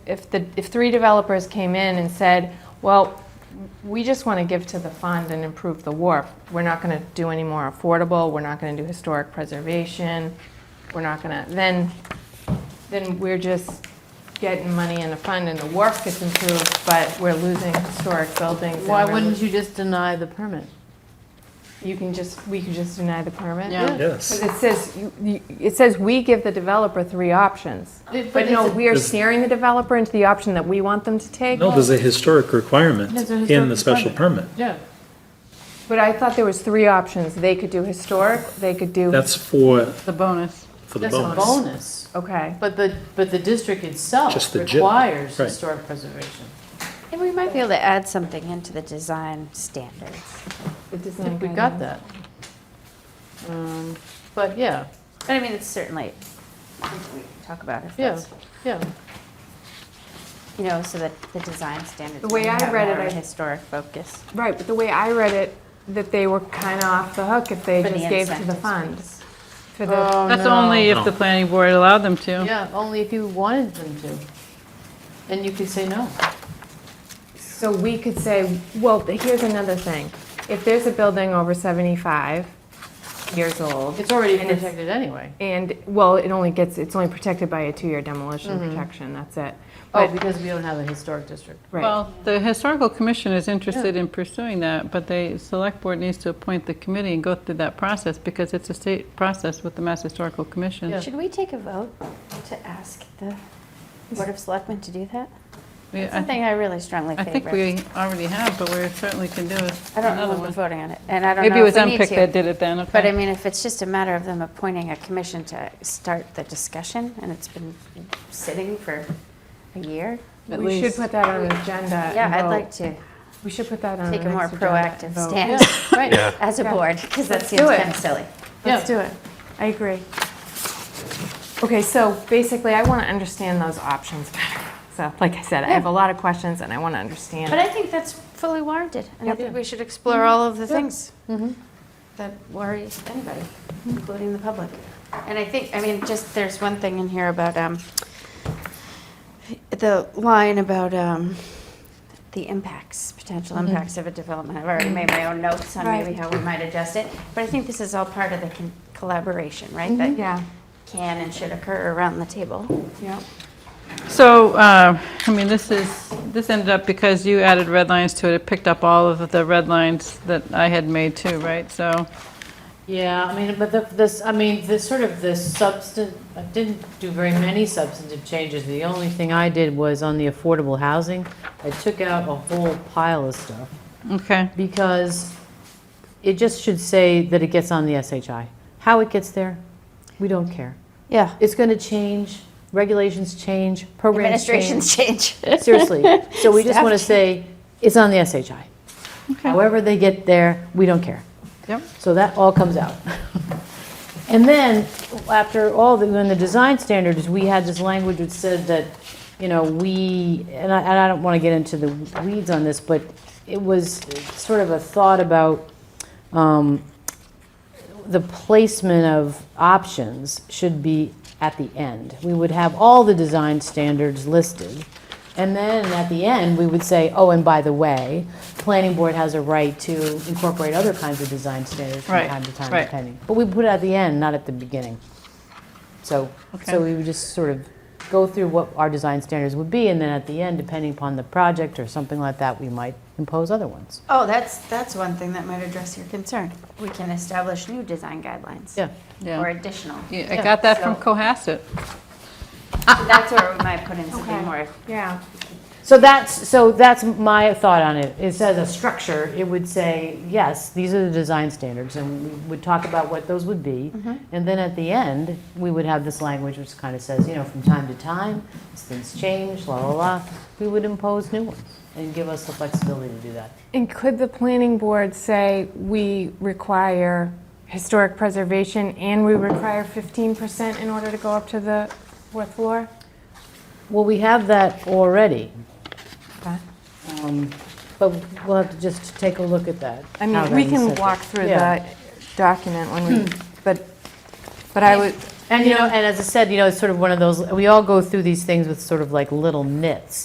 If the, if three developers came in and said, well, we just want to give to the fund and improve the wharf, we're not going to do any more affordable, we're not going to do historic preservation, we're not going to, then, then we're just getting money in the fund and the wharf gets improved, but we're losing historic buildings. and Why we're wouldn't lo- you just deny the permit? You can just, we can just deny the permit? Yeah. Because Yes. it says, you- you- it says we give the developer three options. But But no, it's a- we are Does- steering the developer into the option that we want them to take. No, there's a historic requirement There's a in the historic special permit. Yeah. But I thought there was three options. They could do historic, they could do, That's for, The bonus. for the That's a bonus. bonus. okay. But the, but the district itself Just the gym, requires right. historic preservation. Maybe we might be able to add something into the design standards. The I design think we got guidelines. that. Um, But yeah, But I mean, it's certainly, something we can talk about if yeah, that's, yeah. you know, so that the design standards. The way maybe I have read it, more of a I- Historic focus. Right, but the way I read it, that they were kind of off the hook if they For the just gave to the incentives. Uh. funds. For the, Oh, That's no. only if the planning board allowed them to. Yeah, only if you wanted them to. And you could say no. so we could say, well, here's another thing. If there's a building over 75 years old. It's already And it's- protected anyway. And, well, it only gets, it's only protected by a two-year demolition Mm-hmm. protection, that's it. Oh, But, because we don't have a historic district. right, Well, the historical commission is interested in pursuing that, but the select board needs to appoint the committee and go through that process because it's a state process with the Mass Historical Commission. Yeah. Should we take a vote to ask the Board of Selectmen to do that? We- It's I Something I really strongly I favor. think we already have, but we certainly can do it. I don't another know if we're one. voting on it, and I don't know Maybe it was if we need MPIC to. that did it then, okay. But I mean, if it's just a matter of them appointing a commission to start the discussion, and it's been sitting for a year, At we should least. put that on an agenda. Uh, and yeah, I'd vote. like to We should put that on take the a more next agenda and proactive vote. Yeah, stance right. as a Yeah. board, because that Let's seems do it. kind of silly. Let's do it. I agree. Okay, so basically, I want to understand those options better. So, like I said, I have a lot of questions and I want to But understand. I think that's fully warranted, and I Yep. Mm-hmm. think we should explore all of the things that worry anybody, including the public. And I think, I mean, just, there's one thing in here about, um, the line about, um, the impacts, potential impacts of a development. I've already made my own notes on maybe Mm-hmm. Right. how we might adjust it, but I think this is all part of the con- collaboration, right? That Mm-hmm. Yeah, can and should occur around the table. yeah. So, uh, I mean, this is, this ended up because you added red lines to it, it picked up all of the red lines that I had made too, right? So, Yeah, I mean, but the, this, I mean, this sort of the substan, I didn't do very many substantive changes. The only thing I did was on the affordable housing, I took out a whole pile of stuff okay. because it just should say that it gets on the SHI. How it gets there, we don't care. Yeah. It's going to change, regulations change, programs change. Administrations change. Seriously. So we just Staff want to say, change. it's on the SHI. Okay. However they get there, we don't care. Yep. So that all comes out. And then, after all, the, when the design standards, we had this language which said that, you know, we, and I, and I don't want to get into the weeds on this, but it was sort of a thought about, um, the placement of options should be at the end. We would have all the design standards listed. And then at the end, we would say, oh, and by the way, planning board has a right to incorporate other kinds of design standards from Right, time to time right. depending. But we put it at the end, not at the beginning. So, Okay. so we would just sort of go through what our design standards would be, and then at the end, depending upon the project or something like that, we might impose other ones. Oh, that's, that's one thing that might address your concern. We can establish new design guidelines. Yeah. Yeah. Or additional. Yeah, I got that from So- Cohasset. That's where we might put in something Okay. more. Yeah. So that's, so that's my thought on it. It says a structure, it would say, yes, these are the design standards, and we would talk about what those would be. Mm-hmm. And then at the end, we would have this language which kind of says, you know, from time to time, as things change, la, la, la, we would impose new ones and give us the flexibility to do that. And could the planning board say, we require historic preservation and we require 15% in order to go up to the fourth floor? Well, we have that already, Okay. um, but we'll have to just take a look at that. I how mean, that we is can set walk up. through Yeah. the document when we, but, but I would, And, you know, and as I said, you know, it's sort of one of those, we all go through these things with sort of like little nits.